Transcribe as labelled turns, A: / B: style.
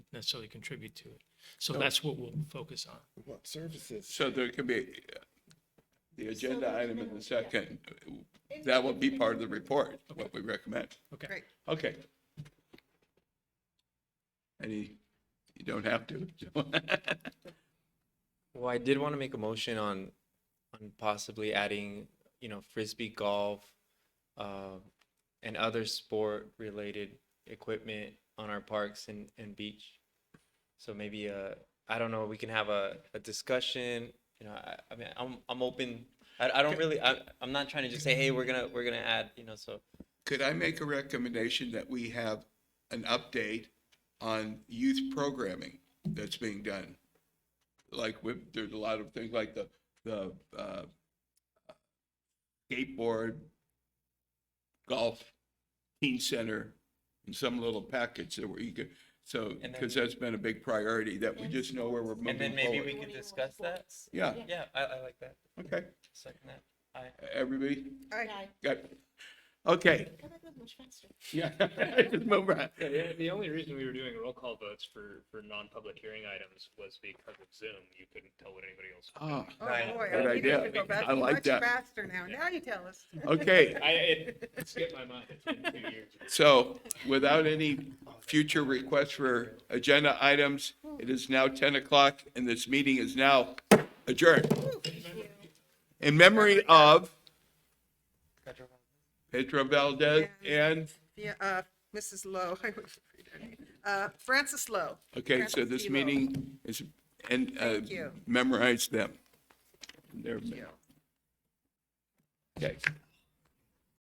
A: necessarily contribute to it. So that's what we'll focus on.
B: What services?
C: So there could be uh, the agenda item in the second, that will be part of the report, what we recommend.
A: Okay.
D: Great.
C: Okay. Any, you don't have to.
E: Well, I did want to make a motion on, on possibly adding, you know, frisbee golf, uh, and other sport-related equipment on our parks and, and beach. So maybe, uh, I don't know, we can have a, a discussion, you know, I, I mean, I'm, I'm open. I, I don't really, I, I'm not trying to just say, hey, we're gonna, we're gonna add, you know, so.
C: Could I make a recommendation that we have an update on youth programming that's being done? Like, with- there's a lot of things like the, the uh, skateboard, golf, teen center, and some little package that we could, so,
E: And then-
C: because that's been a big priority, that we just know where we're
E: And then
C: moving
E: maybe we
C: forward.
E: could discuss that.
C: Yeah,
E: Yeah, I, I like that.
C: okay,
E: Second that. I,
C: everybody,
D: Aye.
C: got, okay,
F: Come up with much faster.
C: yeah, just move on.
G: Yeah, the, the only reason we were doing roll call votes for, for non-public hearing items was because of Zoom. You couldn't tell what anybody else.
C: Ah.
D: Oh,
E: Right.
D: boy.
C: Good
D: You need to
C: idea.
D: go back
C: I like
D: much
C: that.
D: Faster now. Now you tell us.
C: Okay,
G: I, it skipped my mind. It's been two years.
C: so without any future requests for agenda items, it is now 10 o'clock and this meeting is now adjourned. In memory of Pedro Valdez and,
D: Yeah, uh, Mrs. Lowe, I would read her name. Uh, Frances Lowe.
C: okay, so
D: Frances
C: this
D: T. Lowe.
C: meeting is, and uh,
D: Thank you.
C: memorize them. Their-
D: Thank you.
C: Okay.